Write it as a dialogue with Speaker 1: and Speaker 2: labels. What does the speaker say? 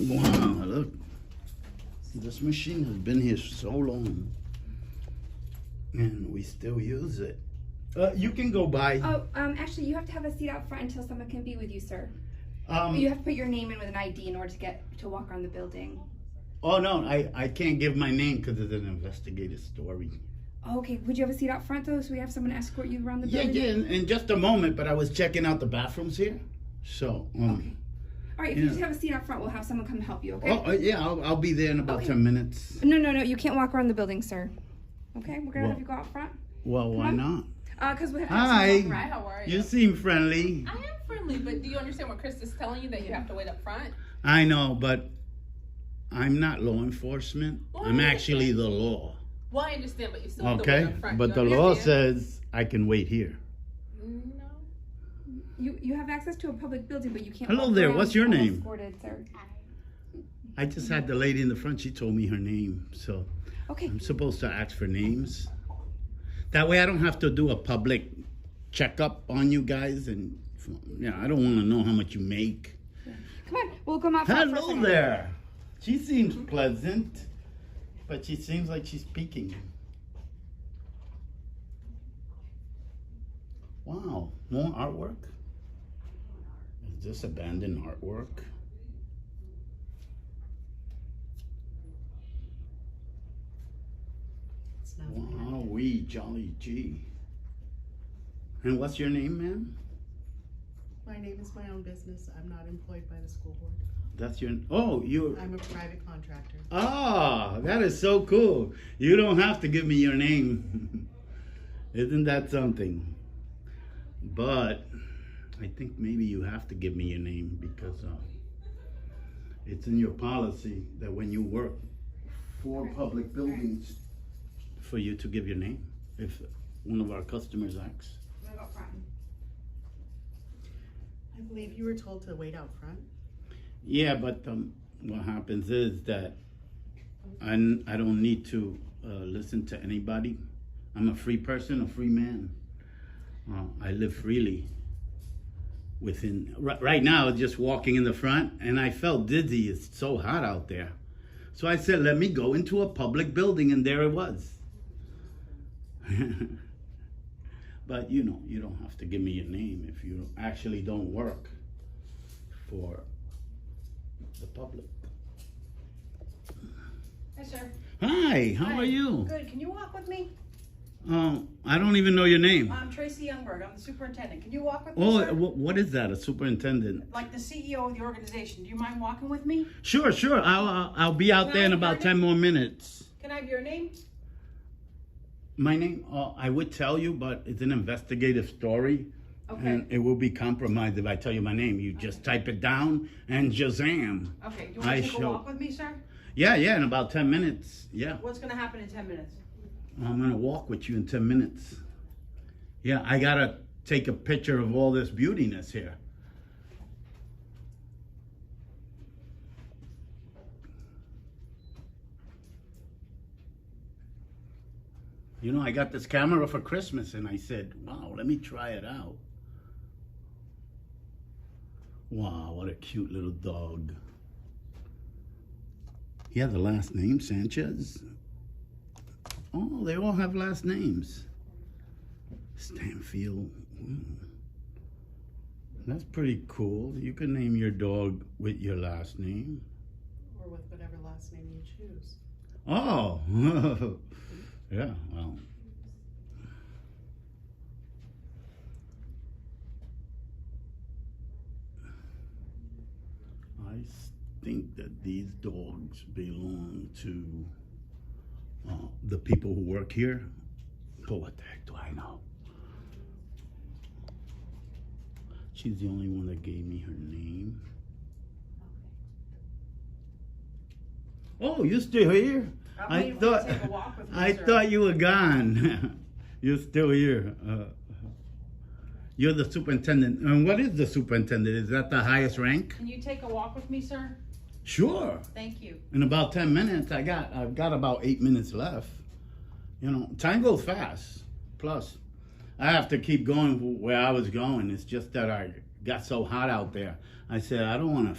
Speaker 1: Wow, look. This machine has been here so long. And we still use it. Uh, you can go by.
Speaker 2: Oh, um, actually, you have to have a seat out front until someone can be with you, sir.
Speaker 1: Um,
Speaker 2: You have to put your name in with an ID in order to get to walk around the building.
Speaker 1: oh, no, I, I can't give my name because it's an investigative story.
Speaker 2: Okay, would you have a seat out front though, so we have someone escort you around the
Speaker 1: Yeah,
Speaker 2: building?
Speaker 1: yeah, in, in just a moment, but I was checking out the bathrooms here. So, um,
Speaker 2: All right, if you
Speaker 1: Yeah.
Speaker 2: just have a seat out front, we'll have someone come help you. Okay.
Speaker 1: oh, uh, yeah, I'll, I'll be there in about
Speaker 2: Okay.
Speaker 1: 10 minutes.
Speaker 2: No, no, no. You can't walk around the building, sir. Okay, we're gonna
Speaker 1: Well-
Speaker 2: have you go out front.
Speaker 1: Well, why
Speaker 2: on.
Speaker 1: not?
Speaker 2: Uh, cause we have. to have someone
Speaker 1: Hi.
Speaker 2: walk
Speaker 3: Hi, how are you?
Speaker 1: You seem friendly.
Speaker 3: I am friendly, but do you understand what Chris is telling you that you have to wait up front?
Speaker 1: I know, but I'm not law enforcement.
Speaker 3: Well,
Speaker 1: I'm
Speaker 3: I
Speaker 1: actually the law.
Speaker 3: Well, I understand, but you still have to wait
Speaker 1: Okay?
Speaker 3: up front.
Speaker 1: But
Speaker 3: you
Speaker 1: the law
Speaker 3: understand? Mm,
Speaker 1: says I can wait here.
Speaker 3: No.
Speaker 2: You you have access to a public building, but you can't.
Speaker 1: Hello
Speaker 2: walk
Speaker 1: there,
Speaker 2: around
Speaker 1: what's your name?
Speaker 2: Escorted, sir.
Speaker 1: I just had the lady in the front, she told me her name. So
Speaker 2: Okay.
Speaker 1: I'm supposed to ask for names. That way I don't have to do a public checkup on you guys and yeah, I don't want to know how much you make.
Speaker 2: Come on, we'll come out. front for a
Speaker 1: Hello
Speaker 2: second.
Speaker 1: there. She seems pleasant, but she seems like she's peeking. Wow, more artwork? Is this abandoned artwork?
Speaker 4: It's not
Speaker 1: Wow, we jolly gee. And what's your name, ma'am?
Speaker 4: my name is my own business. I'm not employed by the school board.
Speaker 1: That's your oh you
Speaker 4: I'm a private contractor.
Speaker 1: ah that is so cool. You don't have to give me your name. Isn't that something? But I think maybe you have to give me your name because uh, it's in your policy that when you work for public buildings, for you to give your name if one of our customers asks.
Speaker 2: We'll go out front.
Speaker 4: I believe you were told to wait out front.
Speaker 1: Yeah, but um, what happens is that I, n- I don't need to uh, listen to anybody. I'm a free person, a free man. Uh, I live freely. Within ri- right now, just walking in the front, and I felt dizzy. It's so hot out there, so I said, "Let me go into a public building," and there it was. but you know, you don't have to give me your name if you actually don't work for the public.
Speaker 5: Hi, sir.
Speaker 1: Hi, how are you?
Speaker 5: Good. Can you walk with me?
Speaker 1: Um, I don't even know your name.
Speaker 5: I'm Tracy Youngberg. I'm the superintendendent. Can you walk with me,
Speaker 1: Oh,
Speaker 5: sir?
Speaker 1: wh- what is that? A superintendent?
Speaker 5: like the CEO of the organization. Do you mind walking with me?
Speaker 1: Sure, sure. I'll I'll, I'll be out there in about ten more minutes.
Speaker 5: Can I have your name?
Speaker 1: My name? Uh, I would tell you, but it's an investigative story,
Speaker 5: Okay.
Speaker 1: and it will be compromised if I tell you my name. You just type it down and Shazam!
Speaker 5: Okay. Do you want
Speaker 1: I
Speaker 5: to take
Speaker 1: shall-
Speaker 5: a walk with me, sir?
Speaker 1: Yeah, yeah. In about ten minutes. Yeah,
Speaker 5: What's going to happen in 10 minutes?
Speaker 1: I'm gonna walk with you in ten minutes. Yeah, I gotta take a picture of all this beautiness here. You know, I got this camera for Christmas and I said, wow, let me try it out. Wow, what a cute little dog. He had the last name, Sanchez. Oh, they all have last names. Stanfield. Hmm. That's pretty cool. You can name your dog with your last name.
Speaker 4: Or with whatever last name you choose.
Speaker 1: Oh, yeah. Well, I s- think that these dogs belong to uh, the people who work here. But what the heck do I know? She's the only one that gave me her name. Oh, you still here?
Speaker 5: I'm
Speaker 1: I
Speaker 5: waiting for you
Speaker 1: thought
Speaker 5: to take a walk with me,
Speaker 1: I
Speaker 5: sir.
Speaker 1: thought you were gone. You're still here. Uh, You're the superintendent. And what is the superintendent? Is that the highest rank?
Speaker 5: Can you take a walk with me, sir?
Speaker 1: Sure.
Speaker 5: Thank you.
Speaker 1: In about ten minutes, I got I've got about eight minutes left. You know, time goes fast. Plus, I have to keep going where I was going. It's just that I got so hot out there. I said I don't want to